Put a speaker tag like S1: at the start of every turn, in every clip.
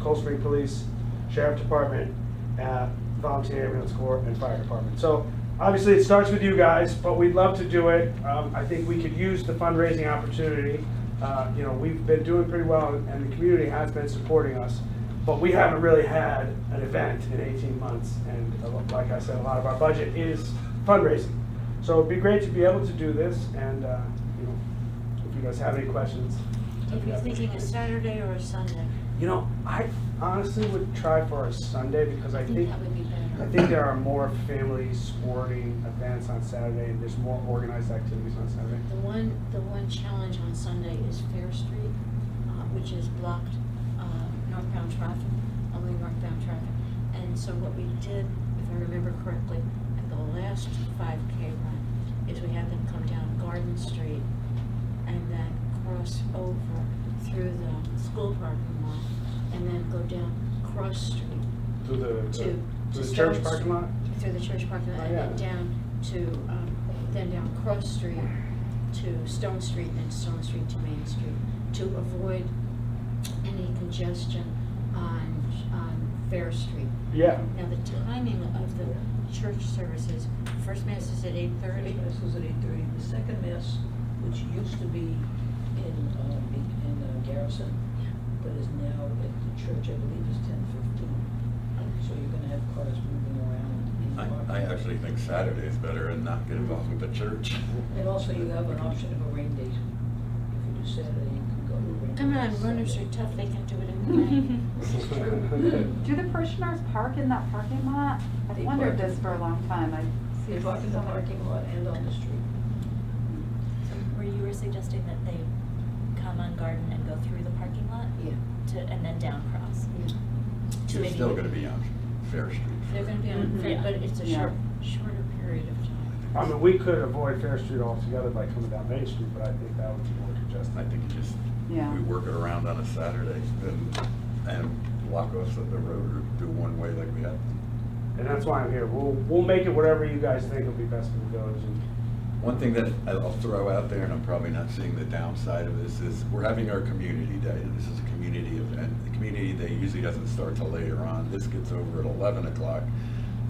S1: Cold Spring Police, Sheriff Department, uh, Volunteer Ambulance Corps, and Fire Department. So obviously, it starts with you guys, but we'd love to do it. Um, I think we could use the fundraising opportunity. Uh, You know, we've been doing pretty well, and the community has been supporting us, but we haven't really had an event in 18 months. And uh, like I said, a lot of our budget is fundraising. So it'd be great to be able to do this, and, uh, you know, if you guys have any questions.
S2: If you're thinking a Saturday or a Sunday,
S1: You know, I honestly would try for a Sunday because I
S2: I think
S1: think,
S2: that would be
S1: I
S2: better.
S1: think there are more family sporting events on Saturday and there's more organized activities on Saturday.
S2: The one, the one challenge on Sunday is Fair Street, uh, which is blocked, uh, northbound traffic, only northbound traffic. And so what we did, if I remember correctly, at the last five K run, is we had them come down Garden Street and then cross over through the school parking lot and then go down Cross Street
S1: Through the,
S2: to. to
S1: through the
S2: Stone
S1: church parking
S2: Street-
S1: lot?
S2: Through the church parking
S1: Oh,
S2: lot, and then
S1: yeah.
S2: down to, um, then down Cross Street to Stone Street, then Stone Street to Main Street, to avoid any congestion on, on Fair Street.
S1: Yeah.
S2: Now, the timing of the church services, first mass is at eight
S3: Thirty
S2: thirty,
S3: mass was at eight thirty, the second mass, which used to be in, um, in- in uh, Garrison, but is now at the church, I believe is ten fifteen. So you're gonna have cars moving around in the parking.
S4: I, I actually think Saturday is better and not get involved with the church.
S3: And also you have an option of a rain date. If you do Saturday, you can go to a rain.
S2: come
S3: date
S2: on, runners are
S3: Saturday.
S2: tough, they can do it in
S5: Do the parishioners park in that parking lot? I've
S3: They
S5: wondered
S3: park.
S5: this for a long time. I see
S3: They park in the
S5: so many-
S3: parking lot and on the street.
S6: So were you were suggesting that they come on Garden and go through the parking lot
S3: Yeah.
S6: to, and then down Cross? To
S4: You're
S6: maybe-
S4: still gonna be on Fair Street.
S2: They're gonna be on,
S5: Mhm.
S2: Fair, but it's a
S5: Yeah.
S2: short, shorter period of time.
S1: I mean, we could avoid Fair Street altogether by coming down Main Street, but I think that would be more
S4: I
S1: congested.
S4: think you just,
S5: Yeah.
S4: we work it around on a Saturday and, and block off of the road or do one way like we have.
S1: And that's why I'm here. We'll, we'll make it whatever you guys think will be best for the village. and-
S4: One thing that I'll throw out there, and I'm probably not seeing the downside of this, is we're having our community day. and This is a community event. The community day usually doesn't start till later on. This gets over at eleven o'clock.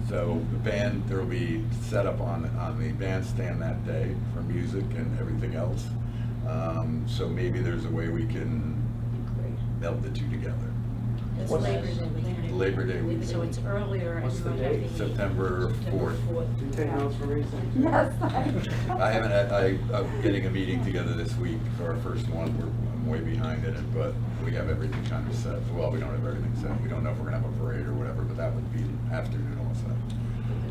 S4: So the band, there'll be set up on, on the bandstand that day for music and everything else. Um, so maybe there's a way we can
S3: Great.
S4: meld the two together.
S3: That's
S1: What's-
S3: nice.
S2: Labor Day weekend.
S4: Labor Day weekend.
S2: So it's earlier and
S1: What's
S2: you
S1: the
S2: might have
S1: date?
S2: the.
S4: September
S3: September
S4: fourth.
S3: fourth.
S1: Do you take notes for me? Sam?
S5: Yes.
S4: I haven't, had- I, I'm getting a meeting together this week, for our first one, we're, I'm way behind in it, but we have everything kind of set. Well, we don't have everything set, we don't know if we're gonna have a parade or whatever, but that would be afternoon also.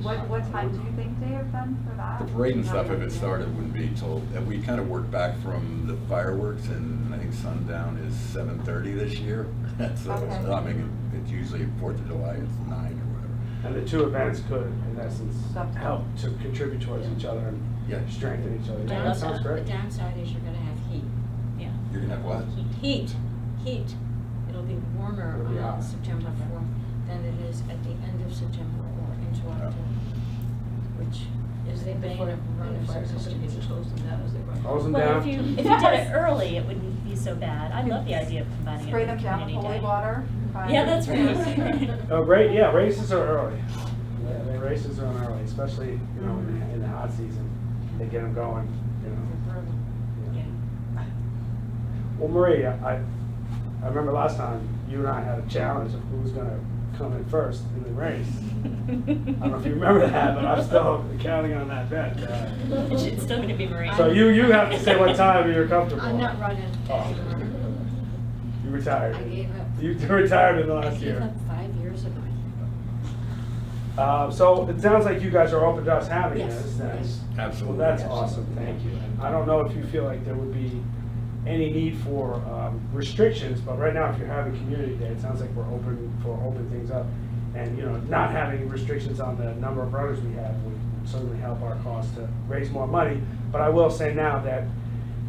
S5: What, what time do you think, Dave, then, for that?
S4: The parade and
S5: No
S4: stuff, if
S5: idea.
S4: it started, wouldn't be till, and we kind of worked back from the fireworks, and I think sundown is seven thirty this year. So, it's-
S5: Okay.
S4: I mean, it's usually Fourth of July, it's nine or whatever.
S1: And the two events could, in essence,
S5: Something.
S1: help to contribute towards each other and
S4: Yeah,
S1: strengthen each other. Yeah, That sounds
S2: Downside, the
S1: great.
S2: downside is you're gonna have heat.
S6: Yeah.
S4: you're gonna have what?
S2: Heat, heat. It'll be warmer
S1: It'll be
S2: on
S1: hot.
S2: September fourth than it is at the end of September or into
S4: Yeah.
S2: October, which is the bane
S3: Before
S2: of
S3: the fire
S2: runners'
S3: company
S2: existence.
S3: just closed them down as they run.
S5: Oh,
S1: Close them
S6: Well,
S1: down.
S6: if you, if you did
S5: Yes.
S6: it early, it wouldn't be so bad. I love the idea of combining it
S5: Spray
S6: with
S5: them down with
S6: community
S5: holy
S6: day.
S5: water?
S6: Yeah, that's right.
S1: Oh, great, yeah, races are early. Yeah, the Races are on early, especially, you know, in the- in the hot season. They get them going, you know.
S6: Yeah.
S1: yeah. Well, Marie, I, I remember last time, you and I had a challenge of who was gonna come in first in the race. I don't know if you remember that, but I'm still counting on that bet. Uh,
S6: It's it's still gonna be Marie.
S1: So you, you have to say what time you're comfortable.
S2: I'm not running anymore.
S1: Oh. You retired.
S2: I gave up.
S1: You retired in the
S2: I
S1: last
S2: gave
S1: year.
S2: up five years ago.
S1: Uh, so it sounds like you guys are open to us having
S2: Yes,
S1: this. then.
S2: yes.
S1: Well,
S4: Absolutely.
S1: that's awesome, thank you. And I don't know if you feel like there would be any need for um, restrictions, but right now, if you're having community day, it sounds like we're open, for open things up. And, you know, not having restrictions on the number of runners we have would certainly help our cause to raise more money. But I will say now that,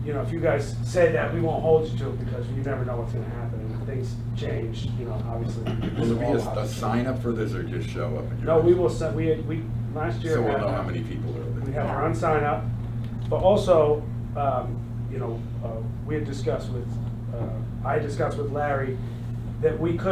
S1: you know, if you guys say that, we won't hold you to it because you never know what's gonna happen. And if things change, you know, obviously.
S4: Will there be
S1: we'll
S4: a,
S1: have
S4: a
S1: to-
S4: sign up for this or just show up? and you're-
S1: No, we will, send- we, had- we, last year.
S4: So we'll
S1: had-
S4: know how many people are
S1: we
S4: there.
S1: have our own sign up, but also, um, you know, uh, we had discussed with, uh, I discussed with Larry that we could